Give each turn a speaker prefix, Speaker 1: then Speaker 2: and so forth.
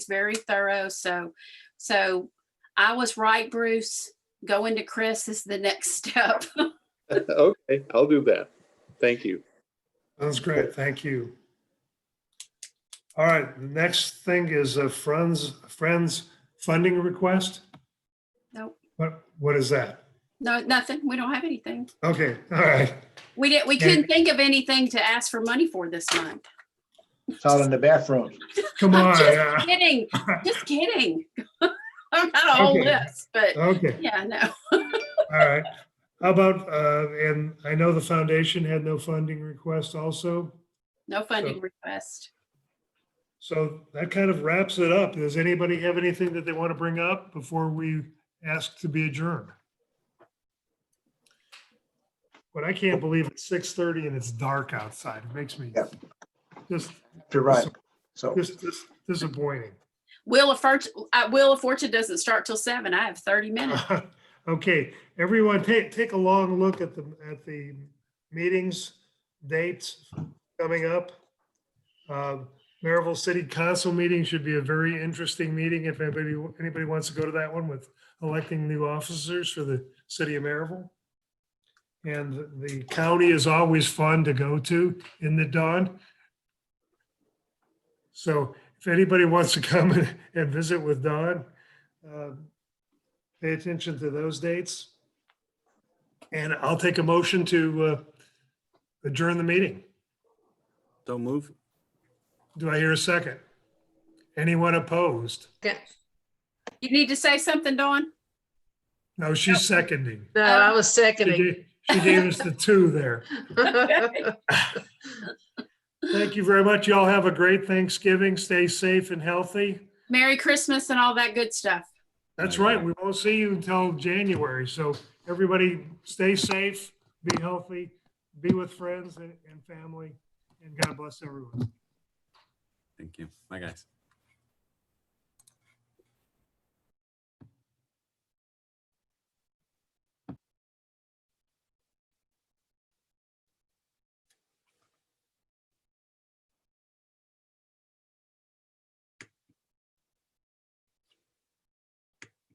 Speaker 1: very thorough. So, so I was right, Bruce. Going to Chris is the next step.
Speaker 2: Okay, I'll do that. Thank you.
Speaker 3: Sounds great, thank you. All right, the next thing is a Friends, Friends funding request?
Speaker 1: Nope.
Speaker 3: What, what is that?
Speaker 1: No, nothing. We don't have anything.
Speaker 3: Okay, all right,
Speaker 1: We didn't, we couldn't think of anything to ask for money for this month.
Speaker 4: It's out in the bathroom.
Speaker 3: come
Speaker 1: I'm
Speaker 3: on.
Speaker 1: just
Speaker 3: yeah.
Speaker 1: kidding. Just kidding. I've got a whole
Speaker 3: Okay.
Speaker 1: list, but
Speaker 3: Okay,
Speaker 1: yeah, no.
Speaker 3: all right. How about, uh, and I know the foundation had no funding request also.
Speaker 1: No funding request.
Speaker 3: So that kind of wraps it up. Does anybody have anything that they want to bring up before we ask to be adjourned? But I can't believe it's six thirty and it's dark outside. It makes me
Speaker 4: Yep.
Speaker 3: just,
Speaker 4: You're right. So
Speaker 3: just just disappointing.
Speaker 1: Wheel of Fortune, uh, Wheel of Fortune doesn't start till seven. I have thirty minutes.
Speaker 3: Okay, everyone, take, take a long look at the, at the meetings, dates coming up. Um, Maryville City Council meeting should be a very interesting meeting if anybody, anybody wants to go to that one with electing new officers for the city of Maryville. And the county is always fun to go to in the dawn. So if anybody wants to come and- and visit with Dawn, uh, pay attention to those dates. And I'll take a motion to uh, adjourn the meeting.
Speaker 5: Don't move.
Speaker 3: Do I hear a second? Anyone opposed?
Speaker 6: Yeah,
Speaker 1: You need to say something, Dawn?
Speaker 3: No, she's seconding.
Speaker 6: no, I was
Speaker 3: She
Speaker 6: seconding.
Speaker 3: gave- she gave us the two there. Thank you very much. Y'all have a great Thanksgiving. Stay safe and healthy.
Speaker 1: Merry Christmas and all that good stuff.
Speaker 3: That's right. We won't see you until January. So everybody stay safe, be healthy, be with friends and and family, and God bless everyone.
Speaker 5: Thank you. Bye, guys.